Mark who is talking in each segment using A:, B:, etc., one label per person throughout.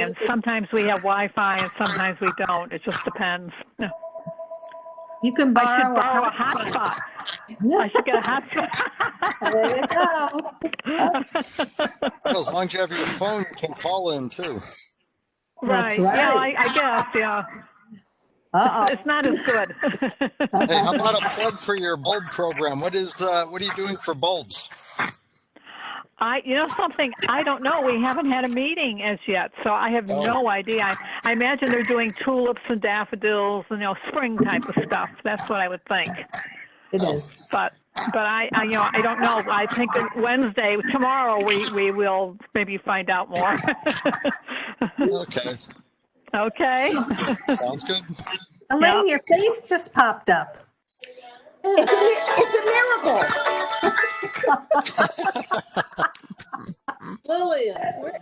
A: And sometimes we have Wi-Fi and sometimes we don't. It just depends.
B: You can
A: I should borrow a
B: borrow a hotspot.
A: hotspot. I should get a
B: There you go.
A: hotspot.
C: Well, as long as you have your phone, you can call in too.
A: Right,
B: That's
A: yeah, I,
B: right.
A: I guess, yeah.
B: Uh-oh.
A: It's not as good.
C: Hey, how about a plug for your bulb program? What is, uh, what are you doing for bulbs?
A: I, you know something, I don't know, we haven't had a meeting as yet, so I have
C: Oh.
A: no idea. I, I imagine they're doing tulips and daffodils, you know, spring type of stuff, that's what I would think.
B: It is.
A: But, but I, I, you know, I don't know, I think that Wednesday, tomorrow, we, we will maybe find out more.
C: Okay,
A: Okay,
C: sounds good.
B: Elaine, your face just popped up.
D: It's a, mi- it's a miracle. Lillian, where-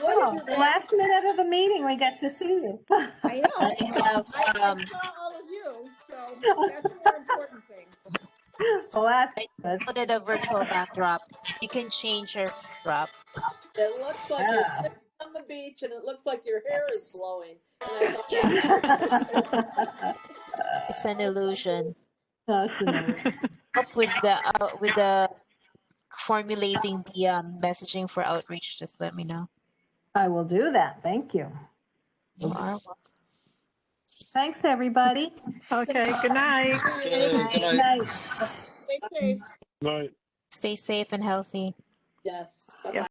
D: what
B: Oh,
D: is your last?
B: Last minute of the meeting, we got to see you.
D: I know. I I
E: um,
D: saw all of you, so that's a more important thing.
B: Well, that-
E: I
B: that's-
E: put it a virtual backdrop. You can change your backdrop.
D: It looks like you're
B: Yeah.
D: sitting on the beach and it looks like your hair is blowing. And I thought,
E: It's an illusion.
B: that's amazing.
E: Help with the uh, with the formulating the um, messaging for outreach. Just let me know.
B: I will do that. Thank you.
E: You are
B: Thanks, everybody.
A: okay, good night.
C: Okay, Good
B: Good
C: night.
B: night.
D: stay safe.
F: Right.
E: Stay safe and healthy.
D: Yes. Bye-bye.
A: Yeah.